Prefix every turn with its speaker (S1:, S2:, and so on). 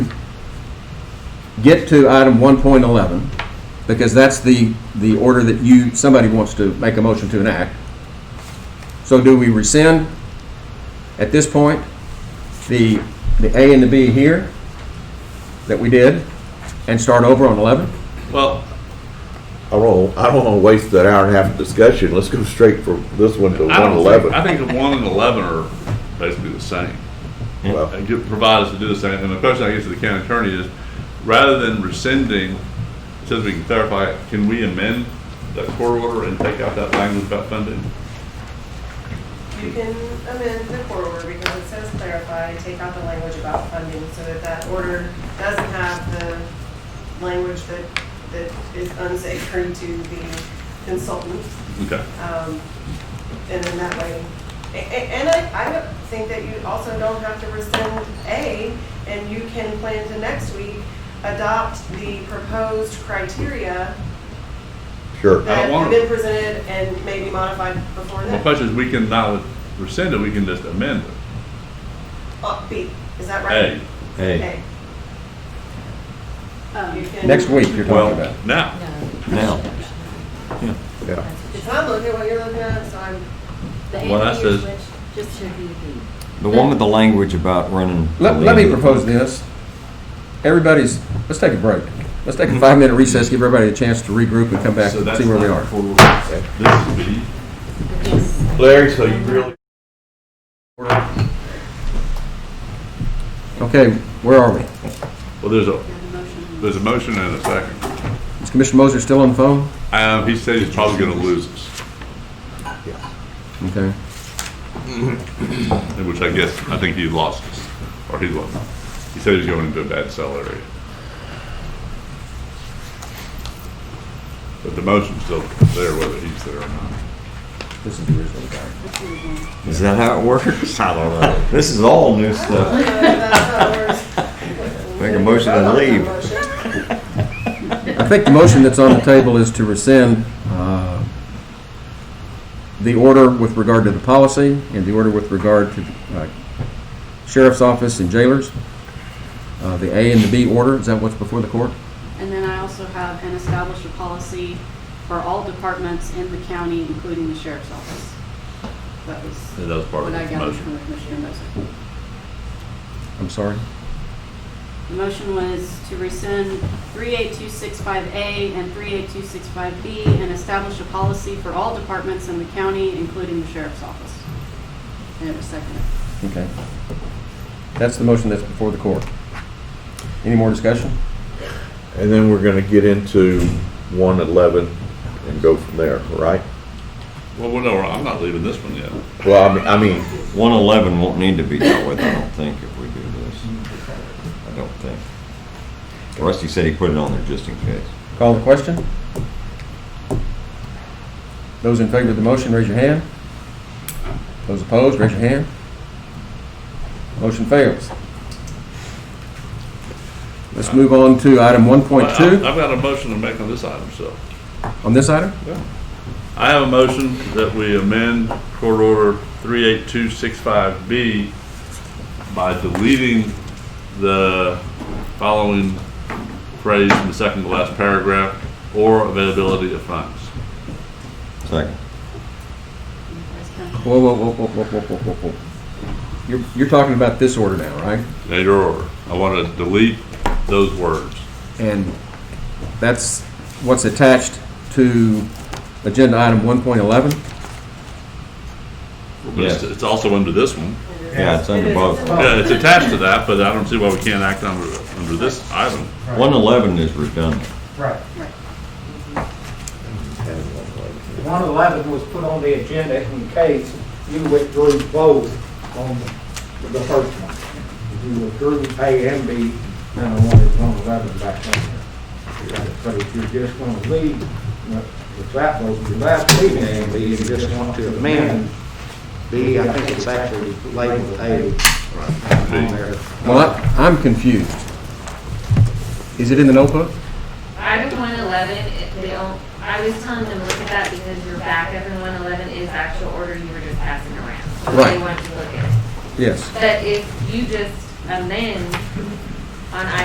S1: get to item 1.11, because that's the, the order that you, somebody wants to make a motion to enact. So do we rescind, at this point, the, the A and the B here that we did, and start over on 11?
S2: Well,
S3: I don't, I don't want to waste that hour and a half of discussion. Let's go straight from this one to
S2: I don't think,
S3: 111.
S2: I think the one and eleven are basically the same.
S3: Well,
S2: Uh, give- Provide us to do the same, and the question I guess to the county attorney is, rather than rescinding, since we can clarify, it, can we amend that court order and take out that language about funding?
S4: You can amend the court order because it says clarify, take out the language about funding so that that order doesn't have the language that, that is unsacred to the consultant.
S2: Okay,
S4: Um, And then that way, a- a- and I, I don't think that you also don't have to rescind A, and you can plan to next week adopt the proposed criteria
S3: sure.
S4: that
S2: want
S4: have
S2: it.
S4: been presented and maybe modified before
S2: my
S4: then.
S2: question is, we can not rescind it, we can just amend it.
S4: Uh, B, is that
S2: A,
S4: right?
S5: Hey,
S6: Um,
S4: You can-
S1: Next week, you're talking about.
S2: now,
S5: now,
S3: Yeah.
S4: Because I'm looking at what you're looking at, so I'm, uh,
S7: The
S2: Well, that
S7: anti-air
S2: says-
S7: switch just should be the.
S5: the one with the language about running.
S1: Let, let me propose this. Everybody's, let's take a break. Let's take a five-minute recess, give everybody a chance to regroup and come back
S2: so
S1: and
S2: that's
S1: see where we
S2: not
S1: are.
S2: court order. This is B.
S3: Larry, so you really
S1: Okay, where are we?
S2: Well, there's a, there's a motion and a second.
S1: Is Commissioner Moser still on the phone?
S2: Um, he said he's probably gonna lose us,
S1: Okay.
S2: which I guess, I think he lost us, or he lost. He said he's going into a bad sell area. But the motion's still there whether he's there or not.
S1: This is the original guy.
S5: Is that how it works? I don't know. This is all new stuff. Make a motion to leave.
S1: I think the motion that's on the table is to rescind uh, the order with regard to the policy and the order with regard to uh, sheriff's office and jailers, Uh, the A and the B order, is that what's before the court?
S6: And then I also have an established a policy for all departments in the county, including the sheriff's office. That was
S2: And that was part of
S6: what I
S2: his
S6: gathered
S2: motion.
S6: from Commissioner Moser.
S1: I'm sorry?
S6: The motion was to rescind 38265A and 38265B and establish a policy for all departments in the county, including the sheriff's office. And it was seconded.
S1: Okay. That's the motion that's before the court. Any more discussion?
S3: And then we're gonna get into one eleven and go from there, right?
S2: Well, well, no, I'm not leaving this one yet.
S3: Well, I mean, I mean,
S5: One eleven won't need to be dealt with, I don't think, if we do this. I don't think. Rusty said he put it on there just in case.
S1: Call the question? Those in favor of the motion, raise your hand. Those opposed, raise your hand. Motion fails. Let's move on to item
S2: Well, I-
S1: 1.2
S2: I've got a motion to make on this item, so.
S1: on this item.
S2: I have a motion that we amend Court Order 38265B by deleting the following phrase in the second to last paragraph, "or availability of funds."
S5: Second.
S6: Vice County.
S1: Whoa, whoa, whoa, whoa, whoa, whoa, whoa, whoa, whoa. You're, you're talking about this order now, right?
S2: Now, your order. I want to delete those words.
S1: And that's what's attached to agenda item 1.11.
S2: But it's-
S5: Yes.
S2: It's also under this one.
S5: Yeah, it's under both.
S2: Yeah, it's attached to that, but I don't see why we can't act under, under this item.
S5: One eleven is redundant.
S8: Right. One eleven was put on the agenda in case you withdrew both on the- the first one. You withdrew A and B, then I wanted one eleven back on there. But if you're just gonna leave, if that was, you're left leaving A and B, you just want to amend B, I think it's actually labeled A.
S2: Right.
S1: Well, I- I'm confused. Is it in the notebook?
S7: Item one eleven, they all, I was telling them, look at that because your backup in one eleven is actual order you were just passing around. So
S1: Right.
S7: They want to look at it.
S1: Yes.
S7: But if you just amend on